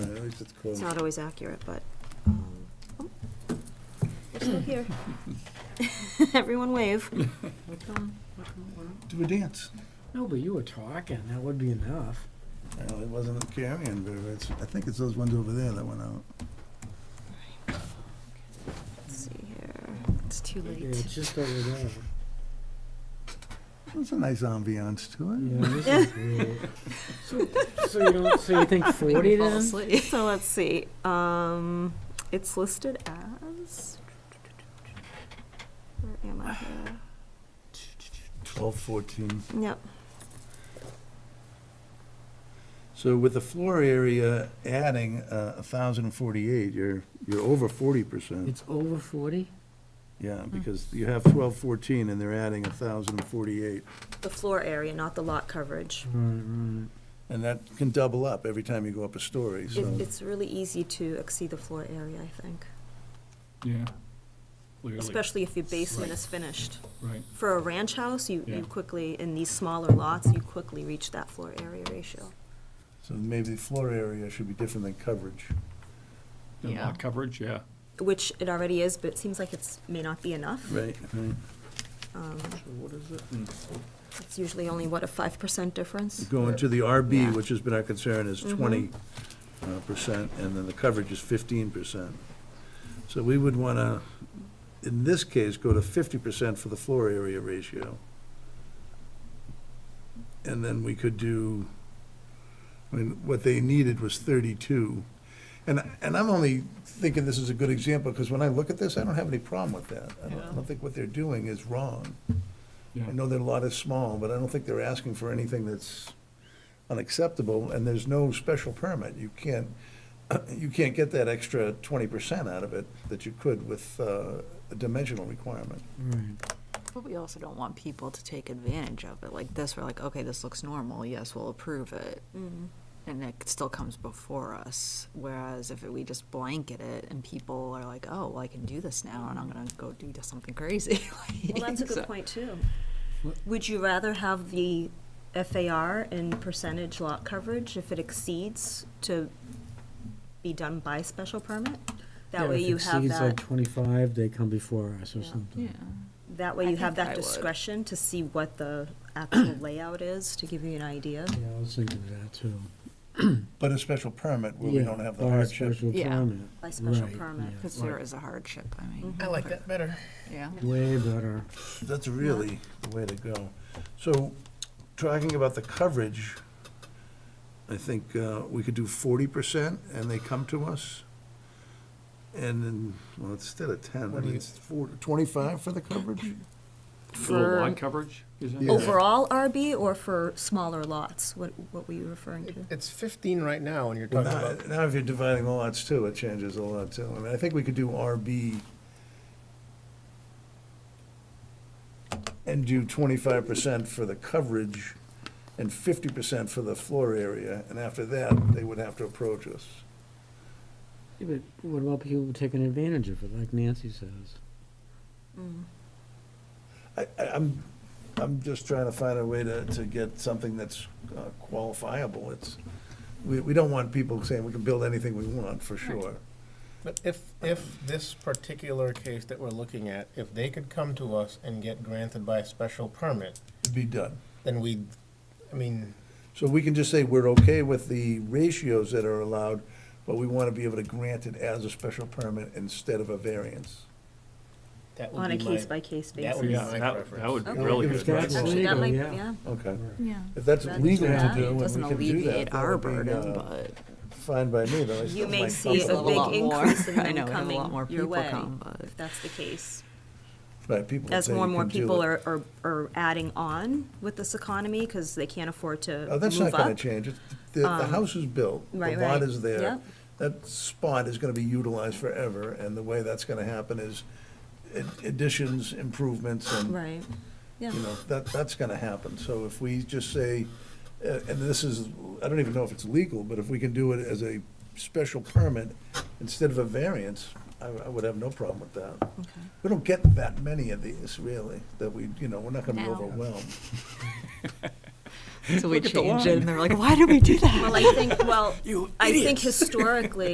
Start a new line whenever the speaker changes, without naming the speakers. at least it's close.
It's not always accurate, but, um, oh, we're still here. Everyone wave.
What come, what come, what?
Do a dance.
No, but you were talking, that would be enough.
Well, it wasn't carrying, but it's, I think it's those ones over there that went out.
Let's see here. It's too
Yeah, It's
late.
just over there.
It's a nice ambiance to it.
Yeah, this is great. So, so you don't, so you think forty then?
So let's see, um, it's listed as, where am I here?
Twelve fourteen.
Yep,
So with the floor area adding uh, a thousand and forty-eight, you're, you're over forty percent.
It's over forty?
Yeah, because you have twelve fourteen and they're adding a thousand and forty-eight.
the floor area, not the lot coverage.
Right,
And that can double up every time you go up a story,
It,
so.
it's really easy to exceed the floor area, I think,
Yeah. Clearly,
especially if your basement
Right.
is finished.
right.
For a ranch house, you,
Yeah.
you quickly, in these smaller lots, you quickly reach that floor area ratio.
So maybe the floor area should be different than coverage.
And
Yeah.
lot coverage, yeah.
Which it already is, but it seems like it's, may not be enough.
Right.
Um,
So what is it?
It's usually only, what, a five percent difference?
Going to the
Yeah.
RB, which has been our concern, is
Mhm.
twenty uh, percent, and then the coverage is fifteen percent. So we would want to, in this case, go to fifty percent for the floor area ratio. And then we could do, I mean, what they needed was thirty-two. And, and I'm only thinking this is a good example, because when I look at this, I don't have any problem with that. I don't- I don't think what they're doing is wrong.
Yeah.
I know their lot is small, but I don't think they're asking for anything that's unacceptable, and there's no special permit. You can't, you can't get that extra twenty percent out of it that you could with uh, a dimensional requirement.
But we also don't want people to take advantage of it, like this, we're like, okay, this looks normal, yes, we'll approve it,
Mhm.
and it still comes before us, whereas if we just blanket it and people are like, oh, well, I can do this now, and I'm gonna go do something crazy.
Well, that's a
So-
good point, too.
What-
Would you rather have the FAR in percentage lot coverage if it exceeds to be done by special permit? That way you have
If it exceeds like
that,
twenty-five, they come before us or
Yeah.
Yeah,
something.
that way
I
you have
think I
that
would.
discretion to see what the actual layout is, to give you an idea.
Yeah, I was thinking of that too.
But a special permit where we
Yeah,
don't have the
or a
hardship.
special
Yeah.
permit.
By special
Right,
permit.
yeah,
because
like
there is a hardship, I mean.
I
like that better. Yeah.
Way better.
That's really the way to go. So, talking about the coverage, I think uh, we could do forty percent, and they come to us. And then, well, instead of ten, I mean, it's four- 25 for the coverage?
For the lot coverage, is it?
Yeah.
Overall RB or for smaller lots? What, what were you referring to?
It's 15 right now, and you're
Well,
talking
Now,
about,
now if you're dividing the lots too, it changes a lot too. I mean, I think we could do RB and do twenty-five percent for the coverage and fifty percent for the floor area, and after that, they would have to approach us.
Yeah, but what about people taking advantage of it, like Nancy says?
I, I, I'm, I'm just trying to find a way to, to get something that's uh, qualifiable. It's, we, we don't want people saying we can build anything we want, for sure.
but if, if this particular case that we're looking at, if they could come to us and get granted by a special permit,
It'd be done.
then we, I mean,
So we can just say we're okay with the ratios that are allowed, but we want to be able to grant it as a special permit instead of a variance.
that would
On a
be my.
case-by-case
that
basis?
would be
Yeah,
my
that,
preference.
that would be
Okay.
really
Give us
good.
guidance.
That's
Actually, that
legal,
might,
yeah.
yeah.
Okay.
Yeah.
If that's
That's
legal to
that.
do, and we
Doesn't
can do that,
alleviate
that
our
would be,
burden,
uh,
but.
fine by me, though. I still
You may
might
see
come
a
up
big
with-
lot more.
increase in
I
them
know, we have a lot
coming
more
your
people
way,
come, but-
if that's the case.
Right, people will
As
say
more and
you
more
can do
people
it.
are, are, are adding on with this economy, because they can't afford to
Oh, that's not
move
gonna
up. Um,
change. It's- The, the house is built, the
right,
lot
right.
is there.
Yep.
That spot is gonna be utilized forever, and the way that's gonna happen is ad- additions, improvements, and
Right, yeah.
you know, that, that's gonna happen. So if we just say, uh, and this is, I don't even know if it's legal, but if we can do it as a special permit instead of a variance, I, I would have no problem with that.
Okay.
We don't get that many of these, really, that we, you know, we're not gonna be
No.
overwhelmed.
So we change it, and they're like, why did we do that?
Well, I think, well, I think historically,